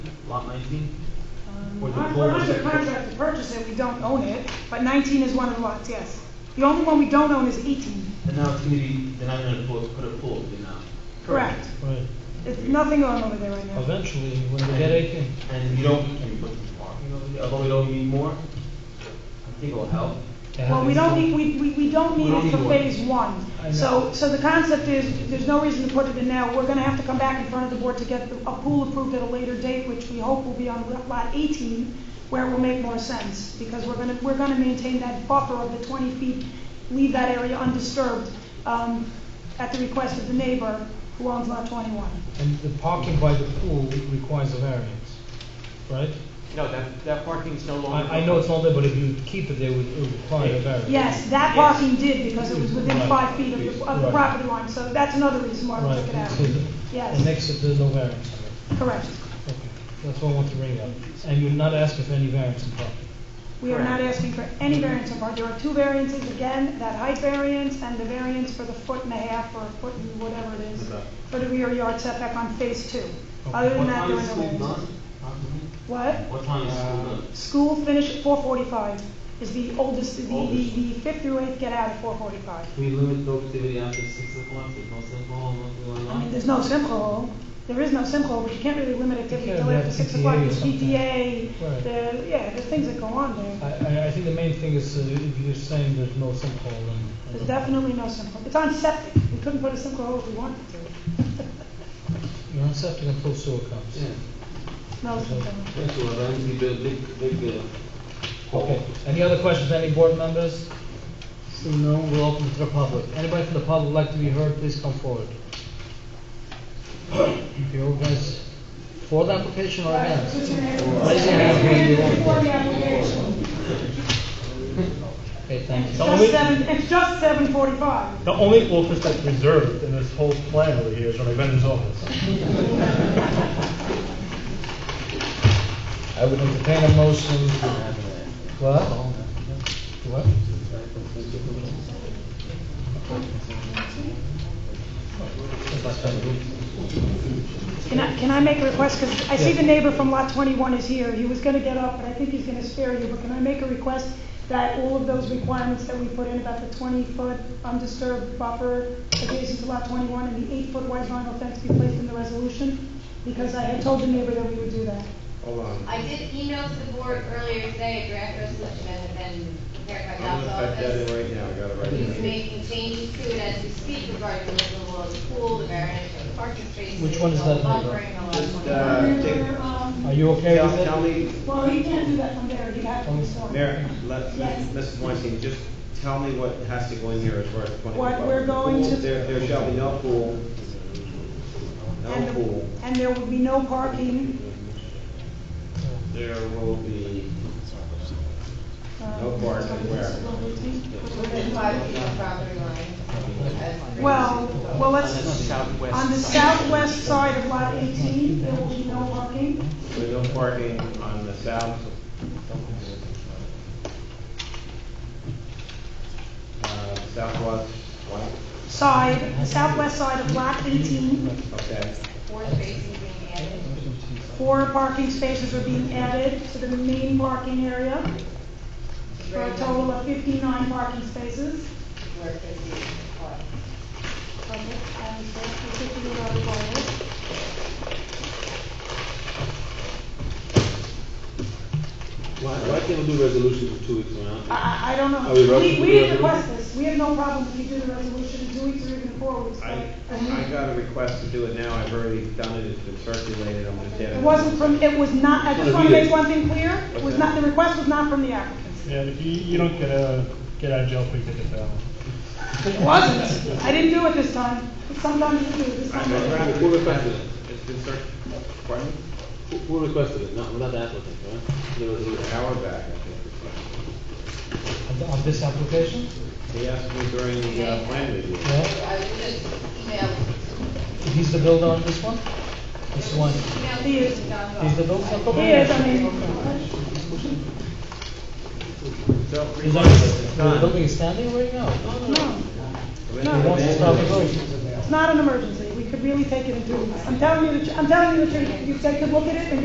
nineteen? Or the We're cul we're under contract to purchase it, we don't own it, but 19 is one of the lots, yes. The only one we don't own is 18. And now it's gonna be, they're not gonna pull, put a pool in now. Correct. Right, It's nothing on over there right now. eventually, when they get eighteen. And you don't, and you put the parking over there, although we don't need more, I think it'll help. to have Well, we don't eighteen. need, we, we, we don't We need don't it for need one. phase one. I So, know. so the concept is, there's no reason to put it in now. We're gonna have to come back in front of the board to get the- a pool approved at a later date, which we hope will be on lot 18, where it will make more sense, because we're gonna, we're gonna maintain that buffer of the 20 feet, leave that area undisturbed, um, at the request of the neighbor who owns lot 21. And the parking by the pool requires a variance, right? No, that, that parking's no longer. I, I know it's not there, but if you keep it, there would it would require a variance. Yes, Yes. that parking did, because it was within Right. five feet of the, of the Right. property line, so that's another reason why we Right, took it out. so the- Yes. the next, if there's no variance on it. Correct. Okay, that's what I want to bring up. And you're not asking for any variance in parking. We are not Correct. asking for any variance so far. There are two variances, again, that height variance and the variance for the foot and a half or foot and whatever it is, Okay. for the rear yard setback on phase two. Okay. Other What than that, time there are is no school done? variances. What? What time is school done? School finish at four forty-five is the oldest, the, the, Oldest. the fifth through eighth get out at four forty-five. Can we limit the activity after six o'clock, there's no alcohol, nothing going I mean, on? there's no simple, there is no simple, but you can't really limit activity can't till after have six PTA o'clock. or There's something. PTA, Right. the, yeah, there's things that go on there. I, I, I think the main thing is, uh, if you're saying there's no sinkhole, then. I There's don't- definitely no simple. It's on septic. We couldn't put a simple hole if we wanted to. You're on septic until sewer comes. Yeah, No simple. that's what, that would be a big, big, uh, Okay, any other questions, any board members? Seeing none, we'll open to the public. Anybody from the public would like to be heard, please come forward. If you're guys for the application or against? Raise your hand. Okay, thank It's you. just seven, it's just seven forty-five. The only office that's reserved in this whole plan over here is my vendor's office. I would entertain a motion. What? What? Can I, can I make a request? Because I see Yeah. the neighbor from lot twenty-one is here. He was gonna get up, but I think he's gonna spare you. But can I make a request that all of those requirements that we put in about the twenty-foot undisturbed buffer adjacent to lot twenty-one and the eight-foot wide vinyl fence be placed in the resolution? Because I had told the neighbor that we would do that. I did email to the board earlier today, a draft resolution that had been prepared by I'm Doc's gonna type that office. in right now, I got it right He's here. making changes to it as we speak regarding the level of the pool, the variance of the parking spaces. Which one is all the that number? buffering, all Just, that. uh, take, Are you okay tell, with it? tell me, Well, he can't do that from there. He'd have to be sorry. Mayor, let, Yes. Mrs. Weinstein, just tell me what has to go in here as far as the twenty. What we're going to- There, there shall be no pool, And no the- pool, And there will be no parking. there will be, um, No parking where? Within five feet of property line. as- Well, well, On the uh, let's, southwest. on the side. southwest side of lot eighteen, there will be no parking. there'll be no parking on the south. Uh, southwest, what, Side, the southwest side of lot eighteen, okay, Four spaces being added. four parking spaces are being added to the main parking area, for a total of fifty-nine parking spaces. Where fifty is required. Okay, and so the 58 are required. Why, why can't we do resolutions in two weeks from now? I, I- I don't know. Are we rushing We, to we do didn't it? request this. We have no problem if you do the resolution in two weeks or even four weeks. I, but- I got a request to do it now, I've already done it, it's been circulated, I'm just adding. It wasn't from, it was not, I just want to Read it. make one thing clear, it was not, the request was not from the applicants. Yeah, if you, you don't get a, get out of jail free ticket though. It wasn't. I didn't do it this time. Sometimes you do, this I- I time. I drafted Who it. requested it? It's been circ, pardon? me? Who- Who requested it? Not, not the applicant, right? The resolution. An hour back, I think. it's On- On this application? like. He asked me during the uh, plan review. Yeah? I was just emailed. He's the builder on this one? This one? Emailed He is- to Doc's He's the office. builder? Yes, I mean, So, Is that, it's the done. building is standing right now? no, He wants to start the building. it's not an emergency. We could really take it in two weeks. I'm telling you, the tr- I'm telling you the truth. You said, could look at it and